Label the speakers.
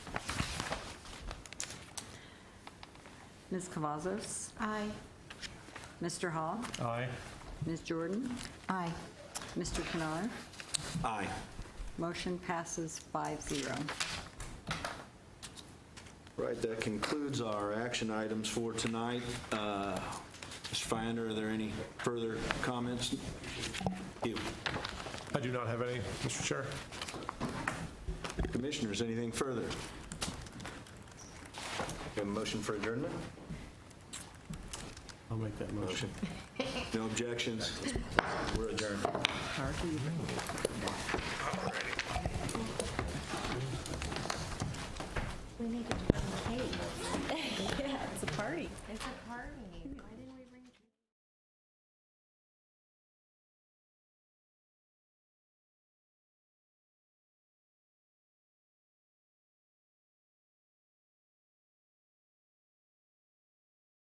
Speaker 1: Ms. Cavazos?
Speaker 2: Aye.
Speaker 1: Mr. Hall?
Speaker 3: Aye.
Speaker 1: Ms. Jordan?
Speaker 2: Aye.
Speaker 1: Mr. Canar?
Speaker 4: Aye.
Speaker 1: Motion passes 5-0.
Speaker 4: Right, that concludes our action items for tonight. Uh, Mr. Finder, are there any further comments? You.
Speaker 3: I do not have any, Mr. Chair.
Speaker 4: Commissioners, anything further? Have a motion for adjournment?
Speaker 5: I'll make that motion.
Speaker 4: No objections? We're adjourned.
Speaker 6: We need to do a cake. Yeah, it's a party. It's a party.